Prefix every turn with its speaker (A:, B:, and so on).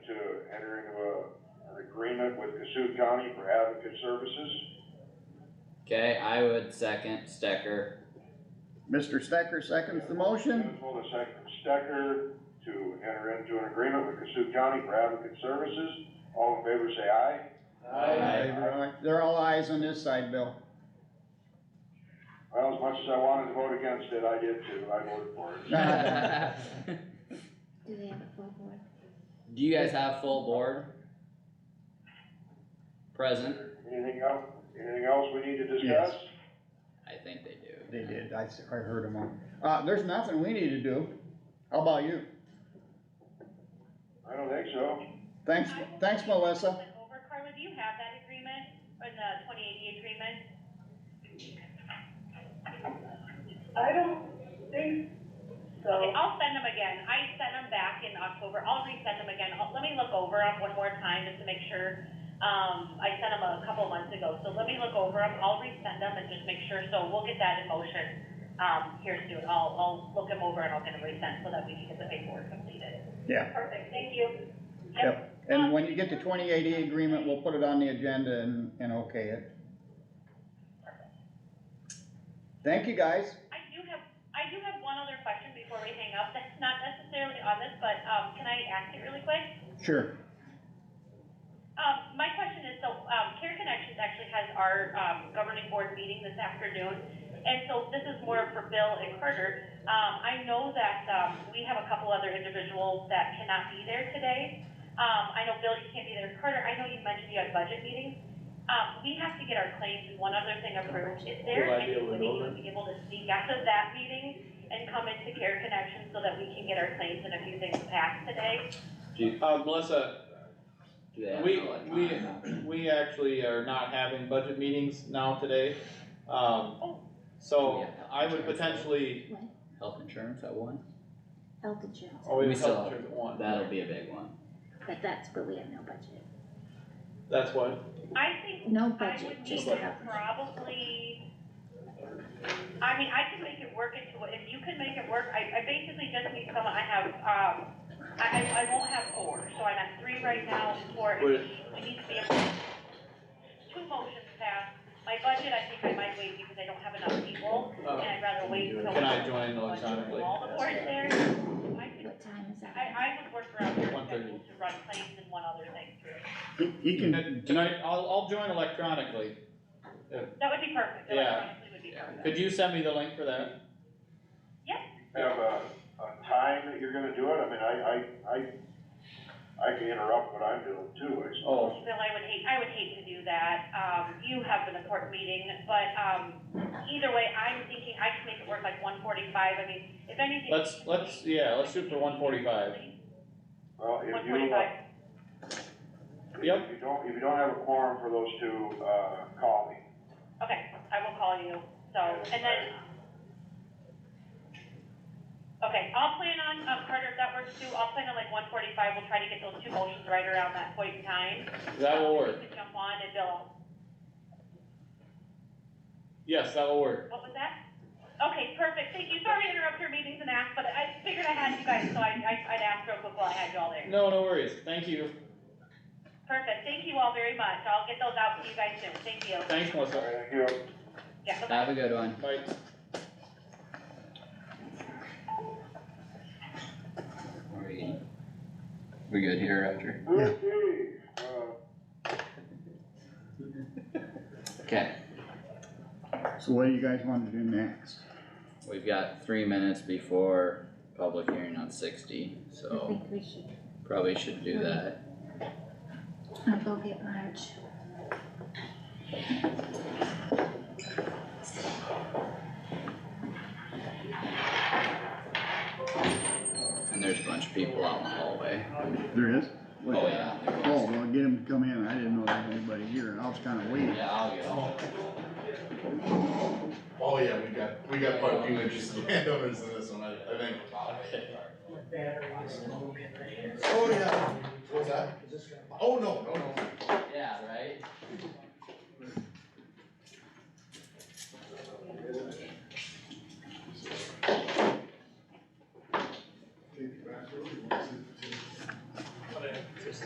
A: Cassup County for Advocate Services.
B: Okay, I would second Stecker.
C: Mr. Stecker seconds the motion.
A: Municipal to second Stecker to enter into an agreement with Cassup County for Advocate Services. All in favor, say aye. Aye.
C: They're all eyes on this side, Bill.
A: Well, as much as I wanted to vote against it, I did too. I voted for it.
B: Do
D: Do they have a full board?
B: you guys have full board? Present,
A: Anything else, anything else we need to discuss?
B: I think they do.
C: They did, I, s- I heard them all. Uh, there's nothing we need to do. How about you?
A: I don't think so.
C: Thanks, thanks Melissa.
E: Over, Carla, do you have that agreement, or the twenty eighty agreement?
F: I don't think so.
E: I'll send them again, I sent them back in October, I'll resend them again, I'll- let me look over them one more time just to make sure. Um, I sent them a couple months ago, so let me look over them, I'll resend them and just make sure, so we'll get that in motion, um, here soon. I'll, I'll look them over and I'll get them resent so that we can get the paperwork completed.
C: Yeah.
E: Perfect, thank you.
C: Yep. And when you get the twenty eighty agreement, we'll put it on the agenda and, and okay it. Thank you, guys.
E: I do have, I do have one other question before we hang up, that's not necessarily on this, but, um, can I ask it really quick?
C: Sure.
E: Um, my question is, so, um, Care Connections actually has our, um, governing board meeting this afternoon. And so this is more for Bill and Carter. Um, I know that, um, we have a couple other individuals that cannot be there today. Um, I know Bill, you can't be there. Carter, I know you mentioned you had budget meetings. Um, we have to get our claims and one other thing approved. Is there
G: Will I be able to
E: anybody
G: go
E: who would be able to speak after that meeting and come into Care Connections so that we can get our claims and a few things passed today?
G: Uh, Melissa,
B: Do they have
G: We-
B: no, like,
G: we-
B: time option?
G: we actually are not having budget meetings now today, um, so I would potentially,
B: Health insurance at one?
D: Health insurance,
G: oh, we
B: We
G: have health
B: still-
G: insurance at one.
B: That'll be a big one.
D: but that's, but we have no budget,
G: That's what,
E: I think
D: no
E: I
D: budget,
E: would
D: just
E: need
D: a
E: to
D: health. insurance.
E: probably, I mean, I can make it work into, if you can make it work, I, I basically just need someone, I have, um, I, I, I won't have four, so I'm at three right now, and four, we
G: Wait.
E: need to be able, to- two motions passed. My budget, I think I might wait because I don't have enough people, and
G: uh,
E: I'd rather wait until.
G: can I join electronically?
E: All the boards there, I could,
D: What time is that?
E: I, I would work around your
G: 1:30.
E: schedule to run claims and one other thing too.
C: He, he
G: Can can I, I'll, I'll join electronically,
E: That would be perfect,
G: Yeah.
E: electronically would be perfect.
G: could you send me the link for that?
A: Have a, a time that you're gonna do it? I mean, I, I, I, I can interrupt what I'm doing too, I
B: Oh.
A: suppose.
E: Bill, I would hate, I would hate to do that. Um, you have an important meeting, but, um, either way, I'm thinking I can make it work like one forty-five. I mean, if anything.
G: Let's, let's, yeah, let's shoot for one forty-five,
A: Well, if
E: One
A: you, uh,
E: forty-five.
G: Yep.
A: if you don't, if you don't have a quorum for those two, uh, call me.
E: Okay, I will call you, so, and then. Okay, I'll plan on, um, Carter, if that works too, I'll plan on like one forty-five. We'll try to get those two motions right around that point in time.
G: that will work,
E: You can Jump on and Bill,
G: yes, that will work,
E: What was that? Okay, perfect, thank you, sorry to interrupt your meetings and ask, but I figured I had you guys, so I, I- I'd ask real quick while I had you all there.
G: no, no worries, thank you,
E: Perfect, thank you all very much, I'll get those out to you guys soon, thank you.
G: thanks
A: All
G: Melissa,
A: right, thank you.
E: Yeah, bye-bye.
B: Have a good one.
G: bye.
B: Are We we good here, Roger?
A: Okay, uh,
B: Okay,
C: So what do you guys wanna do next?
B: we've got three minutes before public hearing on sixty,
D: I
B: so
D: think we should,
B: probably should do that.
D: I'll go get Marge.
B: And there's a bunch of people out in the hallway.
C: There is?
B: Oh, yeah. there was.
C: Oh, well, get him to come in. I didn't know there was anybody here. I was kinda waiting.
B: Yeah, I'll get them.
H: Oh yeah, we got, we got quite a few interested landowners in this one, I, I think. Oh yeah, what's that? Oh, no, no, no.